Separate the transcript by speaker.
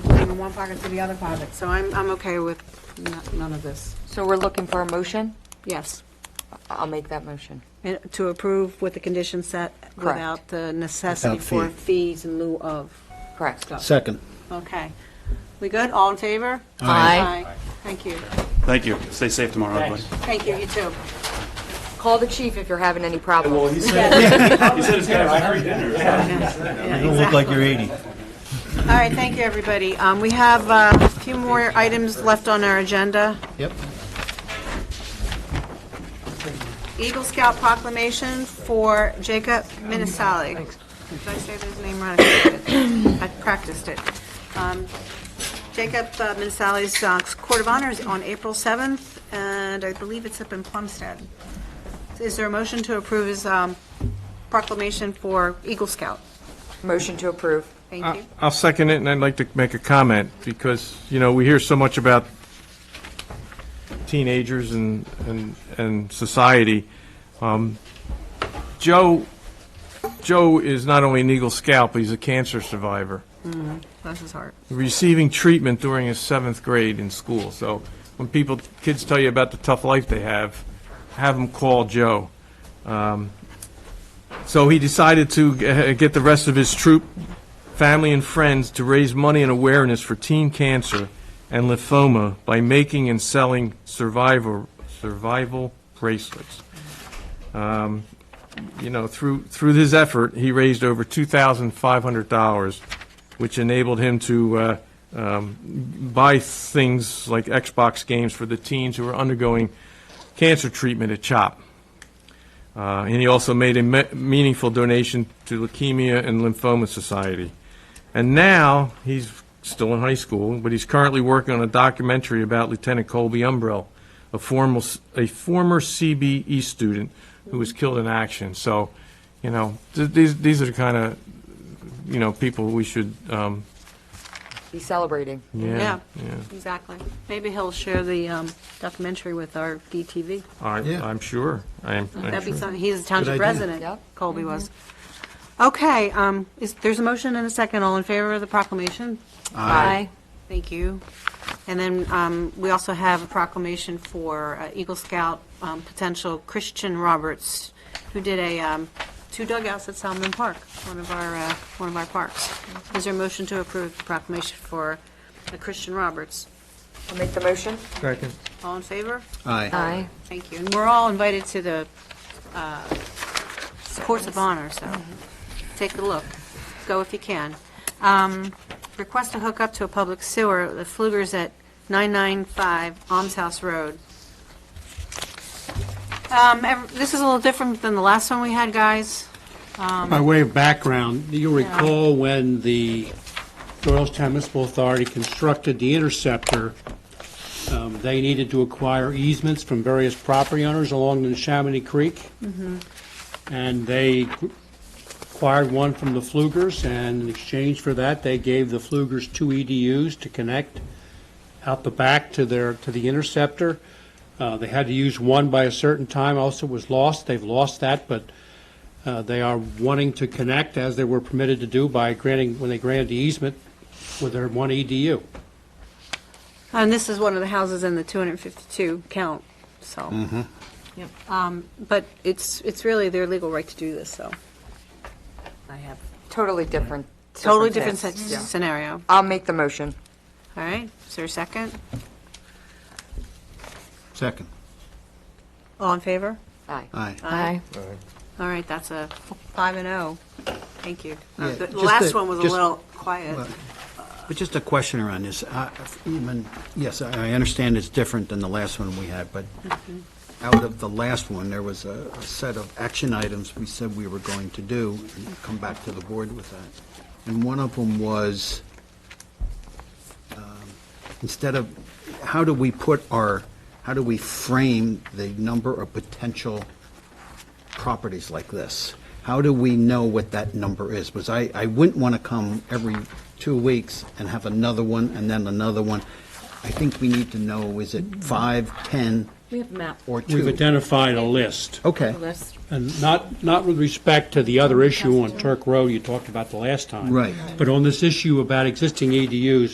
Speaker 1: from one pocket to the other pocket. So I'm, I'm okay with n- none of this.
Speaker 2: So we're looking for a motion?
Speaker 1: Yes.
Speaker 2: I'll make that motion.
Speaker 1: And To approve with the conditions set without the necessity
Speaker 3: Without
Speaker 1: for
Speaker 3: fee.
Speaker 1: fees in lieu of
Speaker 2: Correct.
Speaker 1: stuff.
Speaker 3: Second.
Speaker 1: Okay. We good? All in favor?
Speaker 2: Aye.
Speaker 1: Thank you.
Speaker 4: Thank you. Stay safe tomorrow, everybody.
Speaker 1: Thank you, you too.
Speaker 2: Call the chief if you're having any
Speaker 4: Well,
Speaker 2: problems.
Speaker 4: he said, he said it's got a free dinner.
Speaker 3: You don't look like you're 80.
Speaker 1: All right, thank you, everybody. Um, We have uh, a few more items left on our agenda.
Speaker 3: Yep.
Speaker 1: Eagle Scout proclamation for Jacob Minisali. Did I say his name right? I practiced it. Um, Jacob uh, Minisali's uh, Court of Honor is on April 7th, and I believe it's up in Plumstead. Is there a motion to approve his um, proclamation for Eagle Scout?
Speaker 2: Motion to approve.
Speaker 1: Thank you.
Speaker 5: I'll second it, and I'd like to make a comment, because, you know, we hear so much about teenagers and, and, and society. Um, Joe, Joe is not only an Eagle Scout, but he's a cancer survivor,
Speaker 1: Bless his heart.
Speaker 5: receiving treatment during his seventh grade in school. So when people, kids tell you about the tough life they have, have them call Joe. Um, So he decided to uh, get the rest of his troop, family, and friends to raise money and awareness for teen cancer and lymphoma by making and selling survivor, survival bracelets. Um, You know, through, through this effort, he raised over $2,500, which enabled him to uh, um, buy things like Xbox games for the teens who are undergoing cancer treatment at CHOP. Uh, And he also made a me- meaningful donation to Leukemia and Lymphoma Society. And now, he's still in high school, but he's currently working on a documentary about Lieutenant Colby Umbrell, a former, a former CBE student who was killed in action. So, you know, th- these, these are the kind of, you know, people we should, um,
Speaker 2: He's celebrating.
Speaker 5: yeah, yeah.
Speaker 1: Exactly. Maybe he'll share the um, documentary with our DTV.
Speaker 5: I-
Speaker 3: Yeah.
Speaker 5: I'm sure, I'm, I'm
Speaker 1: That'd be
Speaker 5: sure.
Speaker 1: something, he's the township
Speaker 3: idea.
Speaker 1: president,
Speaker 2: Yep.
Speaker 1: Colby was. Okay, um, is, there's a motion and a second, all in favor of the proclamation?
Speaker 2: Aye.
Speaker 1: Thank you. And then, um, we also have a proclamation for uh, Eagle Scout, um, potential Christian Roberts, who did a, um, two dugouts at Salmon Park, one of our, uh, one of our parks. Is there a motion to approve the proclamation for uh, Christian Roberts?
Speaker 2: I'll make the motion.
Speaker 5: Second.
Speaker 1: All in favor?
Speaker 3: Aye.
Speaker 1: Thank you. And we're all invited to the uh, Courts of Honor, so take a look. Go if you can. Um, Request to hook up to a public sewer, the Flugers at 995 Alms House Road. Um, ev- This is a little different than the last one we had, guys.
Speaker 6: By way of background, you recall when the Doylestown Municipal Authority constructed the interceptor, um, they needed to acquire easements from various property owners along the Chamonix Creek. And they acquired one from the Flugers, and in exchange for that, they gave the Flugers two EDUs to connect out the back to their, to the interceptor. Uh, They had to use one by a certain time, also was lost. They've lost that, but uh, They are wanting to connect, as they were permitted to do by granting, when they granted the easement with their one E EDU.
Speaker 1: And this is one of the houses in the 252 count, so. Um, But it's, it's really their legal right to do this, so. I have
Speaker 2: Totally different.
Speaker 1: totally different
Speaker 2: circumstance.
Speaker 1: sc- scenario.
Speaker 2: I'll make the motion.
Speaker 1: All right, is there a second?
Speaker 3: Second.
Speaker 1: All in favor?
Speaker 2: Aye.
Speaker 3: Aye.
Speaker 2: Aye.
Speaker 1: All right, that's a five and oh. Thank you. Uh,
Speaker 3: Yeah,
Speaker 1: The the
Speaker 3: just
Speaker 1: last
Speaker 3: the-
Speaker 1: one was a
Speaker 3: just-
Speaker 1: little quiet.
Speaker 3: But just a question around this. I- Even, yes, I I understand it's different than the last one we had, but out of the last one, there was a a set of action items we said we were going to do and come back to the board with that. And one of them was, um, instead of, how do we put our, how do we frame the number of potential properties like this? How do we know what that number is? Because I, I wouldn't want to come every two weeks and have another one and then another one. I think we need to know, is it five, ten,
Speaker 7: We have a map.
Speaker 3: or
Speaker 6: We've
Speaker 3: two?
Speaker 6: identified a list,
Speaker 3: Okay,
Speaker 7: List.
Speaker 6: and not, not with respect to the other issue on Turk Road you talked about the last time.
Speaker 3: Right.
Speaker 6: But on this issue about existing E EDUs,